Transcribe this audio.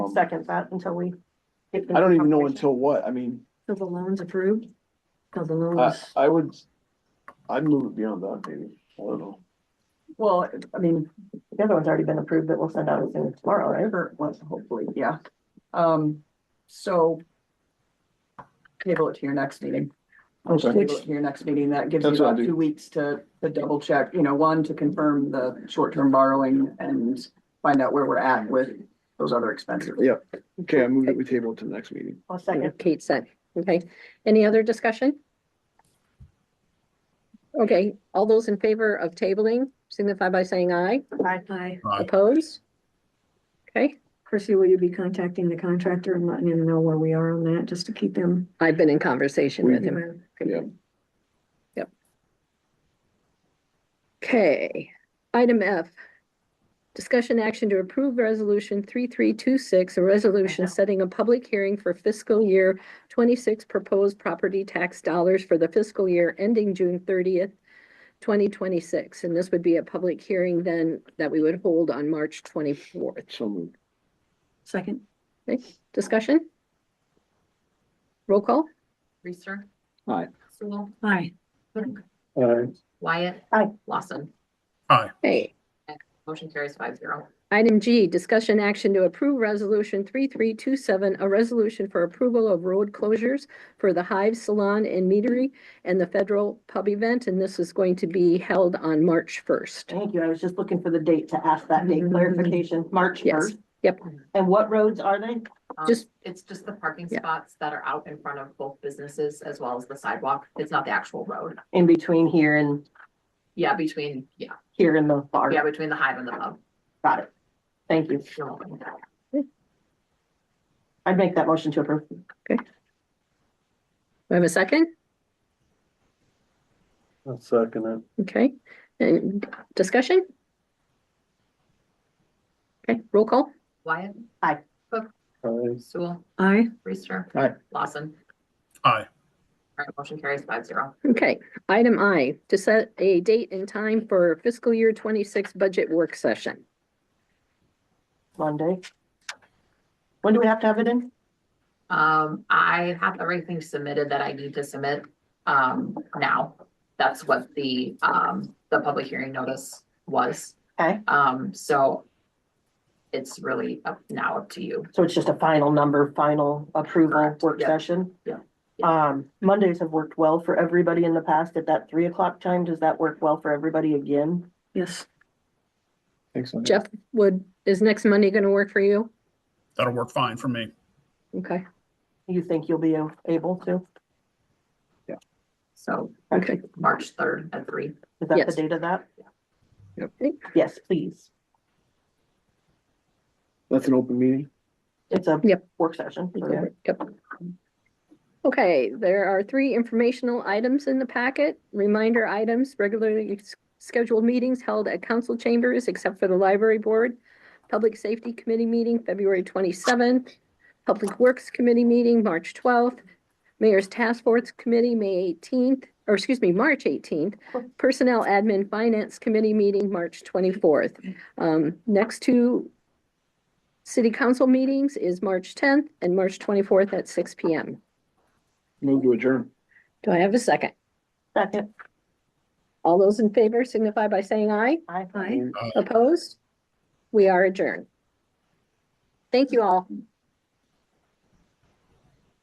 second that until we. get the I don't even know confirmation. until Uh, what, I mean, Till the loan's approved? Till the loan I, is- I would, I'd move it beyond that, maybe, I don't know. well, I mean, The other one's already been approved that we'll send out as soon as tomorrow, right? whatever it was, hopefully, yeah. Um, so table it to your next meeting. Okay. Table it to your next meeting, that gives you That's what I about do. two weeks to, to double check, you know, one, to confirm the short-term borrowing and find out where we're at with those other expenses. Yeah. Okay, I moved it, we table it to the next meeting. I'll second. Kate said, okay, any other discussion? Okay, all those in favor of tabling signify by saying aye, Aye. Hi, Aye. opposed? Okay, Chrissy, will you be contacting the contractor and letting him know where we are on that, just to keep him? I've been in conversation with him, Yeah. okay, item F. Discussion action to approve resolution three three two six, a resolution setting a public hearing for fiscal year twenty-six proposed property tax dollars for the fiscal year ending June thirtieth, twenty twenty-six, and this would be a public hearing then that we would hold on March twenty-fourth. So moved. Second, Okay, discussion? Roll call? Reister. Aye. Sewell. hi, Clerk. Wyatt. Aye. Lawson. Hey, Motion carries five zero. item G, discussion action to approve resolution three three two seven, a resolution for approval of road closures for the Hive Salon and Meadery and the Federal Pub Event, and this is going to be held on March first. Thank you. I was just looking for the date to ask that date Mm-hmm. clarification, March Yes. first. Yep. And what roads are they? Um, Just- It's just the parking Yeah. spots that are out in front of both businesses as well as the sidewalk. It's not the actual road. In between here and Yeah, between, yeah, here in the bar. yeah, between the hive and the pub. Got it. Thank you. No. I'd make that motion to approve. Do I have a second? I'll second it. Okay, and discussion? Okay, roll call? Wyatt. Aye. Cook. Aye. Sewell. hi, Reister. Aye. Lawson. Aye. All right, motion carries five zero. Okay, item I, to set a date and time for fiscal year twenty-six budget work session. Monday. When do we have to have it in? Um, I have everything submitted that I need to submit, um, now. That's what the, um, the public hearing notice was. Okay, Um, so it's really up now up to you. so it's just a final number, final approval Correct, work yeah. session? Yeah, Um, Mondays have worked well for everybody in the past at that three o'clock time. Does that work well for everybody again? yes, Thanks. Sonia. Jeff, would, is next Monday gonna work for you? That'll work fine for me. Okay, You think you'll be able to? So okay, March third at three. Is that the Yes. date of that? Yep. Yes, please. That's an open meeting. It's a Yep. work session. Yeah, yep. Okay, there are three informational items in the packet, reminder items, regularly s- scheduled meetings held at council chambers except for the library board, Public Safety Committee meeting February twenty-seventh, Public Works Committee meeting March twelfth, Mayor's Task Force Committee, May eighteenth, or excuse me, March eighteenth, Personnel Admin Finance Committee meeting, March twenty-fourth. Um, next two City council meetings is March tenth and March twenty-fourth at six P M. Move to adjourn. Do I have a second? Second, All those in favor signify by saying aye. I. hi. Opposed? We are adjourned. Thank you all.